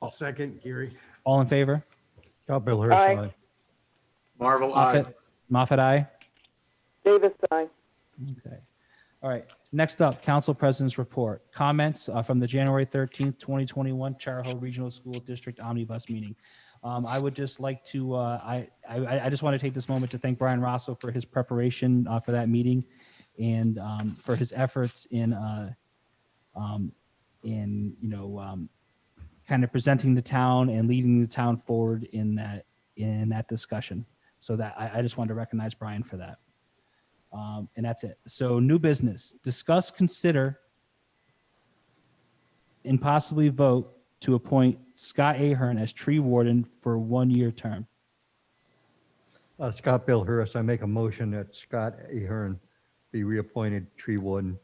I'll second Gary. Oh. All in favor? Scott Bill Hirsch, Aye. aye. Marvel, aye. Moffat, Moffat, aye. Davis, aye. Okay. All right. Next up, Council President's Report. Comments uh, from the January 13th, 2021 Charahoe Regional School District Omnibus Meeting. Um, I would just like to, uh, I, I, I just want to take this moment to thank Brian Rosso for his preparation uh, for that meeting and um, for his efforts in, uh, um, in, you know, um, kind of presenting the town and leading the town forward in that, in that discussion. So that, I, I just wanted to recognize Brian for that. Um, and that's it. So new business, discuss, consider, and possibly vote to appoint Scott Ahern as tree warden for one-year term. Uh, Scott Bill Hirsch, I make a motion that Scott Ahern be reappointed tree warden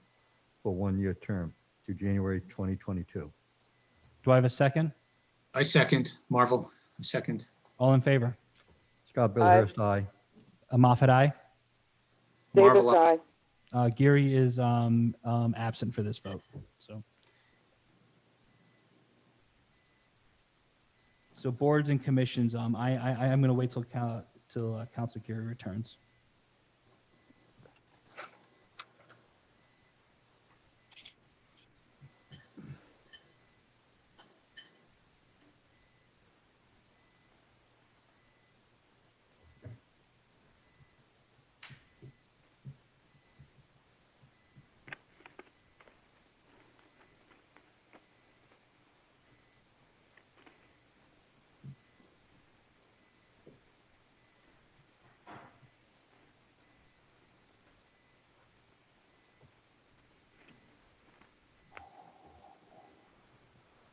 for one-year term to January 2022. Do I have a second? I second, Marvel, I second. All in favor? Scott Bill Aye. Hirsch, aye. Uh, Moffat, aye. Davis, Marvel, aye. Uh, Geary is um, um, absent for this vote. So. So boards and commissions, um, I, I, I am going to wait till, Cal- till uh, Council Geary returns.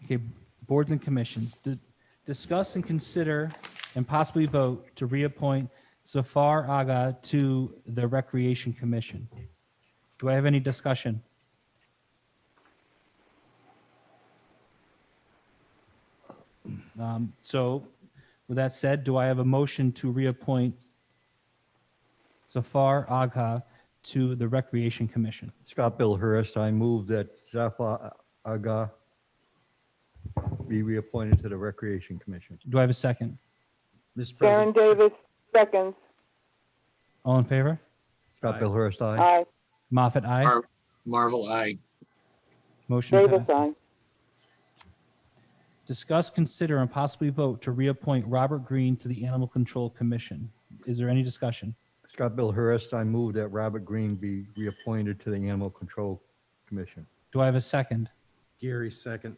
Okay, boards and commissions, Di- discuss and consider and possibly vote to reappoint Zafar Aga to the Recreation Commission. Do I have any discussion? Um, So with that said, do I have a motion to reappoint Zafar Aga to the Recreation Commission? Scott Bill Hirsch, I move that Zafar Aga be reappointed to the Recreation Commission. Do I have a second? Mr. Sharon President, Davis, seconds. All in favor? Scott Aye. Bill Hirsch, aye. Aye. Moffat, aye. Mar- Marvel, aye. Motion Davis, passes. aye. Discuss, consider, and possibly vote to reappoint Robert Green to the Animal Control Commission. Is there any discussion? Scott Bill Hirsch, I move that Robert Green be reappointed to the Animal Control Commission. Do I have a second? Gary, second.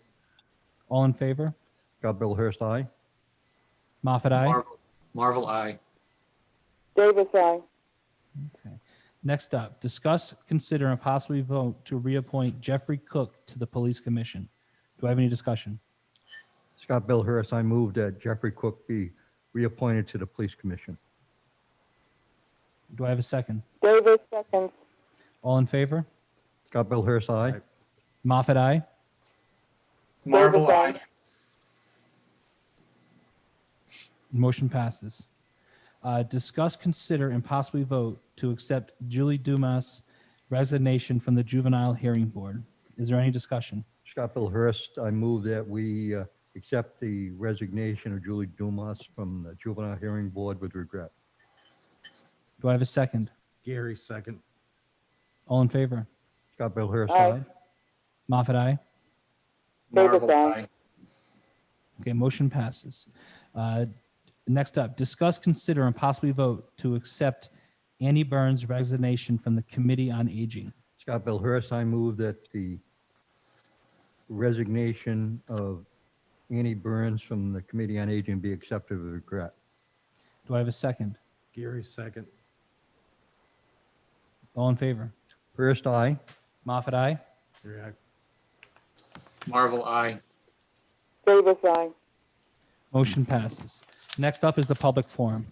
All in favor? Scott Bill Hirsch, aye. Moffat, aye. Marvel- Marvel, aye. Davis, aye. Next up, discuss, consider, and possibly vote to reappoint Jeffrey Cook to the Police Commission. Do I have any discussion? Scott Bill Hirsch, I move that Jeffrey Cook be reappointed to the Police Commission. Do I have a second? Davis, seconds. All in favor? Scott Bill Hirsch, aye. Moffat, aye. Marvel, Davis, aye. aye. Motion passes. Uh, Discuss, consider, and possibly vote to accept Julie Dumas' resignation from the Juvenile Hearing Board. Is there any discussion? Scott Bill Hirsch, I move that we uh, accept the resignation of Julie Dumas from the Juvenile Hearing Board with regret. Do I have a second? Gary, second. All in favor? Scott Bill Hirsch, Aye. aye. Moffat, aye. Marvel, aye. aye. Okay, motion passes. Uh, Next up, discuss, consider, and possibly vote to accept Annie Burns' resignation from the Committee on Aging. Scott Bill Hirsch, I move that the resignation of Annie Burns from the Committee on Aging be accepted with regret. Do I have a second? Gary, second. All in favor? Hirsch, aye. Moffat, aye. React. Marvel, aye. Davis, aye. Motion passes. Next up is the public forum.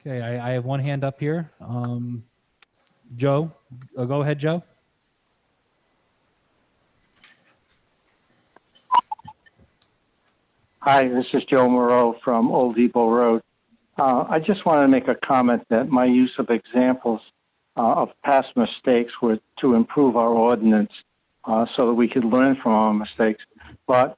Okay, I, I have one hand up here. Um, Joe, uh, go ahead, Joe. Hi, this is Joe Moreau from Old Depot Road. Uh, I just wanted to make a comment that my use of examples uh, of past mistakes were to improve our ordinance uh, so that we could learn from our mistakes. But